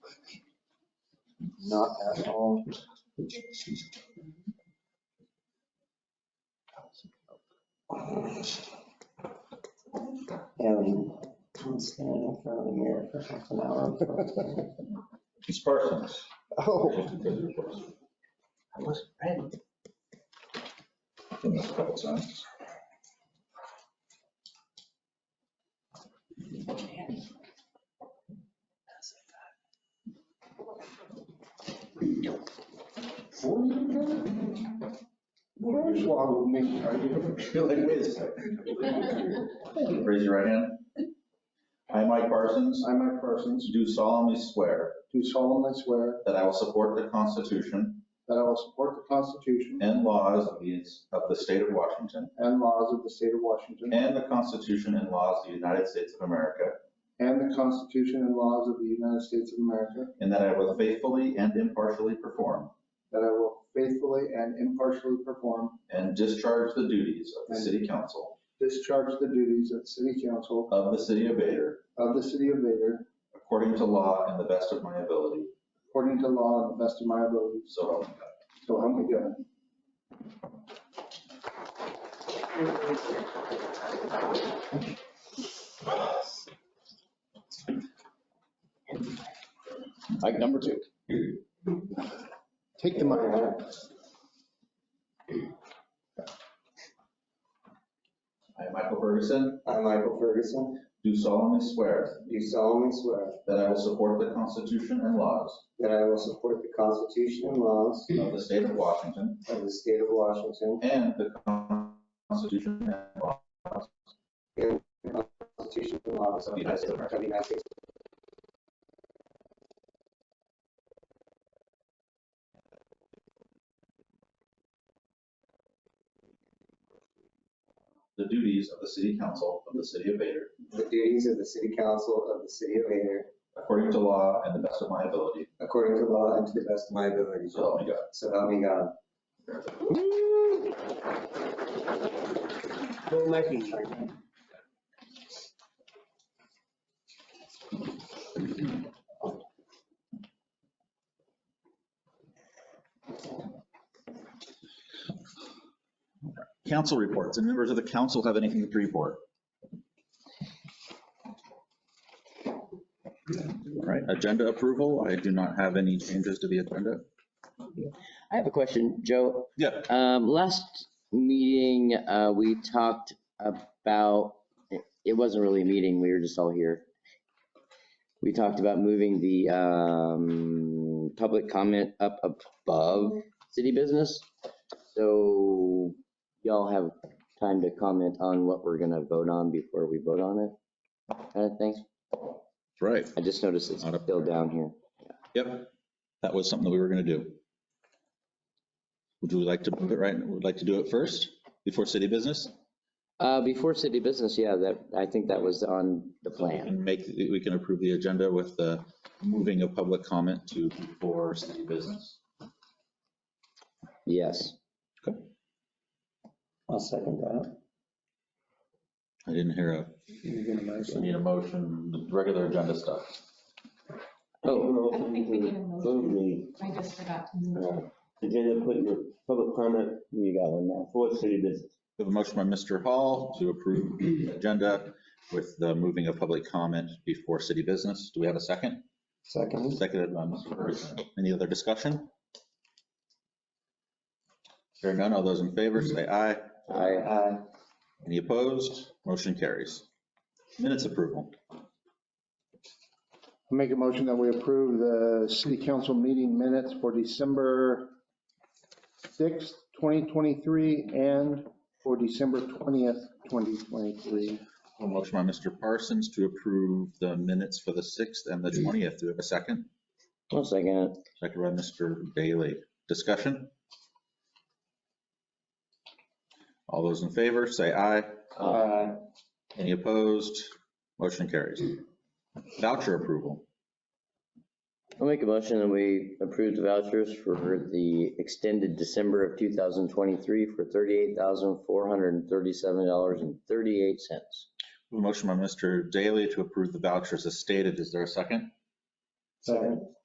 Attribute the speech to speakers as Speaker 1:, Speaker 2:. Speaker 1: Not at all.
Speaker 2: And I'm standing in front of the mirror for half an hour.
Speaker 1: It's Parsons.
Speaker 2: Oh,
Speaker 1: I wasn't ready. Done this a couple times.
Speaker 3: Four years ago? What are you swallowing me? Are you-
Speaker 1: You're like, wait a second. Raise your right hand. I, Mike Parsons,
Speaker 3: I, Mike Parsons,
Speaker 1: do solemnly swear
Speaker 3: do solemnly swear
Speaker 1: that I will support the Constitution
Speaker 3: that I will support the Constitution
Speaker 1: and laws of the, of the state of Washington
Speaker 3: and laws of the state of Washington
Speaker 1: and the Constitution and laws of the United States of America,
Speaker 3: and the Constitution and laws of the United States of America,
Speaker 1: and that I will faithfully and impartially perform
Speaker 3: that I will faithfully and impartially perform,
Speaker 1: and discharge the duties of the city council
Speaker 3: discharge the duties of city council
Speaker 1: of the city of Vader
Speaker 3: of the city of Vader
Speaker 1: according to law and the best of my ability.
Speaker 3: according to law and the best of my abilities.
Speaker 1: So help me God.
Speaker 3: So help me God.
Speaker 4: Like number two.
Speaker 3: Take the mic.
Speaker 1: I, Michael Ferguson,
Speaker 2: I, Michael Ferguson,
Speaker 1: do solemnly swear
Speaker 2: do solemnly swear
Speaker 1: that I will support the Constitution and laws
Speaker 2: that I will support the Constitution and laws
Speaker 1: of the state of Washington
Speaker 2: of the state of Washington
Speaker 1: and the Constitution and laws
Speaker 2: and the Constitution and laws
Speaker 1: of the United States of America.
Speaker 2: of the United States
Speaker 1: the duties of the city council of the city of Vader
Speaker 2: the duties of the city council of the city of Vader
Speaker 1: according to law and the best of my ability.
Speaker 2: according to law and to the best of my ability.
Speaker 1: So help me God.
Speaker 2: So help me God.
Speaker 1: Council reports. And members of the council have anything to report? All right, agenda approval. I do not have any changes to the agenda.
Speaker 4: I have a question, Joe.
Speaker 1: Yeah.
Speaker 4: Um, last meeting, uh, we talked about, it- it wasn't really a meeting, we were just all here. We talked about moving the, um, public comment up above city business. So y'all have time to comment on what we're gonna vote on before we vote on it, kind of thing.
Speaker 1: Right.
Speaker 4: I just noticed it's
Speaker 1: Not up
Speaker 4: still down here.
Speaker 1: Yep, that was something that we were going to do. Would you like to move it right, would like to do it first, before city business?
Speaker 4: Uh, before city business, yeah, that, I think that was on the plan.
Speaker 1: And make, we can approve the agenda with the moving of public comment to before city business.
Speaker 4: Yes.
Speaker 2: I'll second that.
Speaker 1: I didn't hear a, need a motion, the regular agenda stuff.
Speaker 4: Oh,
Speaker 5: I don't think we need a motion.
Speaker 6: Move
Speaker 5: I just forgot.
Speaker 6: the uh, agenda, put your public comment
Speaker 4: you got one now.
Speaker 6: for city business.
Speaker 1: We have a motion by Mr. Hall to approve the agenda with the moving of public comment before city business. Do we have a second?
Speaker 2: Second.
Speaker 1: Seconded by Mr. Ferguson. Any other discussion? Hearing none, all those in favor say aye.
Speaker 4: I,
Speaker 2: Aye.
Speaker 1: Any opposed? Motion carries. Minutes approval.
Speaker 3: I Make a motion that we approve the city council meeting minutes for December 6th, 2023, and for December 20th, 2023.
Speaker 1: A motion by Mr. Parsons to approve the minutes for the 6th and the 20th. Do we have a second?
Speaker 4: one second.
Speaker 1: Second by Mr. Bailey. Discussion? All those in favor, say aye.
Speaker 2: Aye.
Speaker 1: Any opposed? Motion carries. Voucher approval.
Speaker 4: I'll make a motion that we approve the vouchers for the extended December of 2023 for $38,437.38.
Speaker 1: Motion by Mr. Daly to approve the vouchers as stated. Is there a second?
Speaker 2: Second.